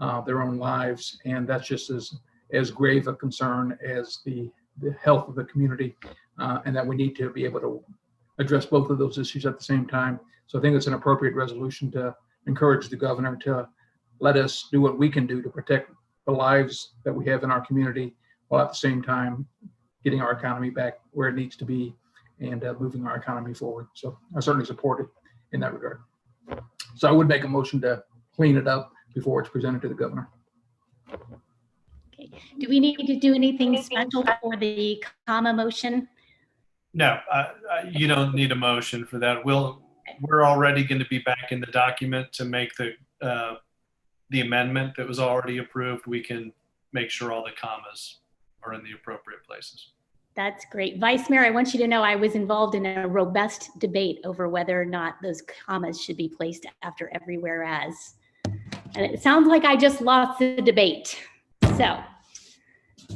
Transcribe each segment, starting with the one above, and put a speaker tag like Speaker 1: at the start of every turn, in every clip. Speaker 1: uh, their own lives. And that's just as, as grave a concern as the, the health of the community. uh, And that we need to be able to address both of those issues at the same time. So I think it's an appropriate resolution to encourage the governor to let us do what we can do to protect the lives that we have in our community while at the same time getting our economy back where it needs to be and uh, moving our economy forward. So I certainly support it in that regard. So I would make a motion to clean it up before it's presented to the governor.
Speaker 2: Do we need to do anything special for the comma motion?
Speaker 3: No, uh, uh, you don't need a motion for that. We'll, we're already going to be back in the document to make the, uh, the amendment that was already approved. We can make sure all the commas are in the appropriate places.
Speaker 2: That's great. Vice Mayor, I want you to know I was involved in a robust debate over whether or not those commas should be placed after every whereas. And it sounds like I just lost the debate. So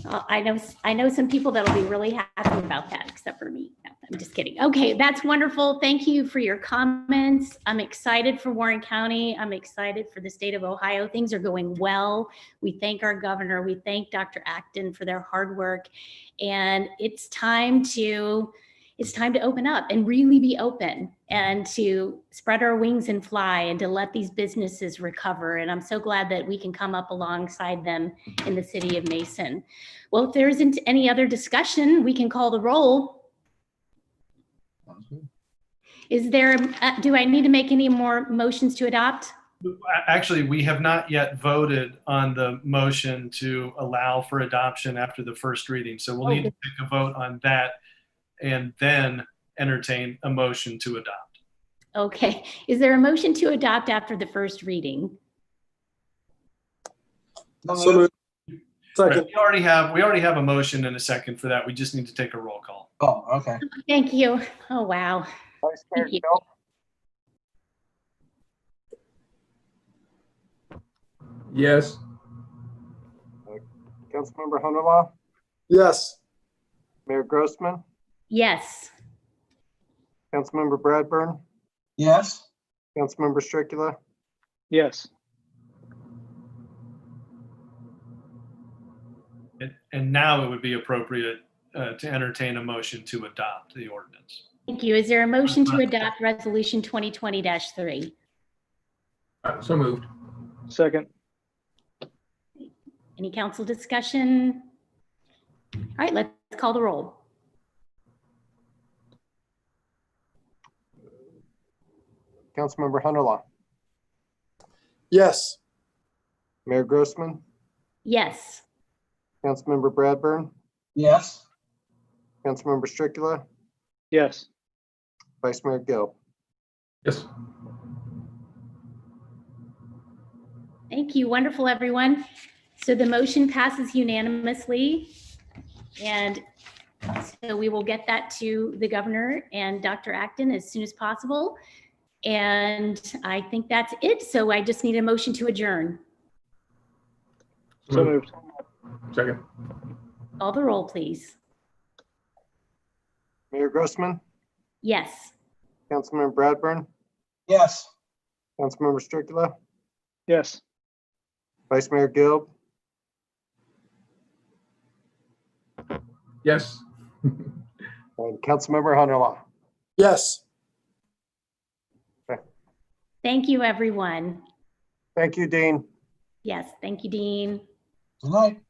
Speaker 2: uh, I know, I know some people that'll be really happy about that, except for me. No, I'm just kidding. Okay, that's wonderful. Thank you for your comments. I'm excited for Warren County. I'm excited for the state of Ohio. Things are going well. We thank our governor. We thank Dr. Acton for their hard work and it's time to it's time to open up and really be open and to spread our wings and fly and to let these businesses recover and i'm so glad that we can come up alongside them in the city of mason well if there isn't any other discussion we can call the roll is there uh, do i need to make any more motions to adopt
Speaker 3: A- Actually, we have not yet voted on the motion to allow for adoption after the first reading. So we'll need to take a vote on that and then entertain a motion to adopt.
Speaker 2: okay is there a motion to adopt after the first reading
Speaker 4: So moved.
Speaker 3: Right,
Speaker 4: Second.
Speaker 3: We already have, we already have a motion and a second for that. We just need to take a roll call.
Speaker 4: Oh, okay.
Speaker 2: thank you oh wow
Speaker 5: Vice Mayor
Speaker 2: Thank you.
Speaker 5: Phelps,
Speaker 1: Yes,
Speaker 5: Councilmember Hunterlaw,
Speaker 4: Yes.
Speaker 5: Mayor Grossman,
Speaker 2: yes
Speaker 5: Councilmember Bradburn,
Speaker 4: Yes.
Speaker 5: Councilmember Stricula,
Speaker 6: Yes,
Speaker 3: And, and now it would be appropriate uh, to entertain a motion to adopt the ordinance.
Speaker 2: Thank you. Is there a motion to adopt Resolution 2020-3?
Speaker 1: Uh, so moved.
Speaker 6: second,
Speaker 2: Any council discussion? All right, let's call the roll.
Speaker 5: Councilmember Hunterlaw,
Speaker 4: Yes.
Speaker 5: Mayor Grossman,
Speaker 2: Yes,
Speaker 5: Councilmember Bradburn,
Speaker 4: Yes.
Speaker 5: Councilmember Stricula,
Speaker 6: yes,
Speaker 5: Vice Mayor Gill.
Speaker 1: Yes,
Speaker 2: thank you. Wonderful, everyone. So the motion passes unanimously. And so we will get that to the governor and Dr. Acton as soon as possible. And I think that's it. So I just need a motion to adjourn.
Speaker 6: so moved.
Speaker 1: second.
Speaker 2: Call the roll, please.
Speaker 5: Mayor Grossman,
Speaker 2: Yes,
Speaker 5: Councilmember Bradburn,
Speaker 4: Yes.
Speaker 5: Councilmember Stricula,
Speaker 6: Yes,
Speaker 5: Vice Mayor Gill,
Speaker 1: Yes,
Speaker 5: and Councilmember Hunterlaw.
Speaker 4: Yes.
Speaker 2: thank you, everyone.
Speaker 5: Thank you, Dean.
Speaker 2: Yes, thank you, Dean.
Speaker 4: Good night.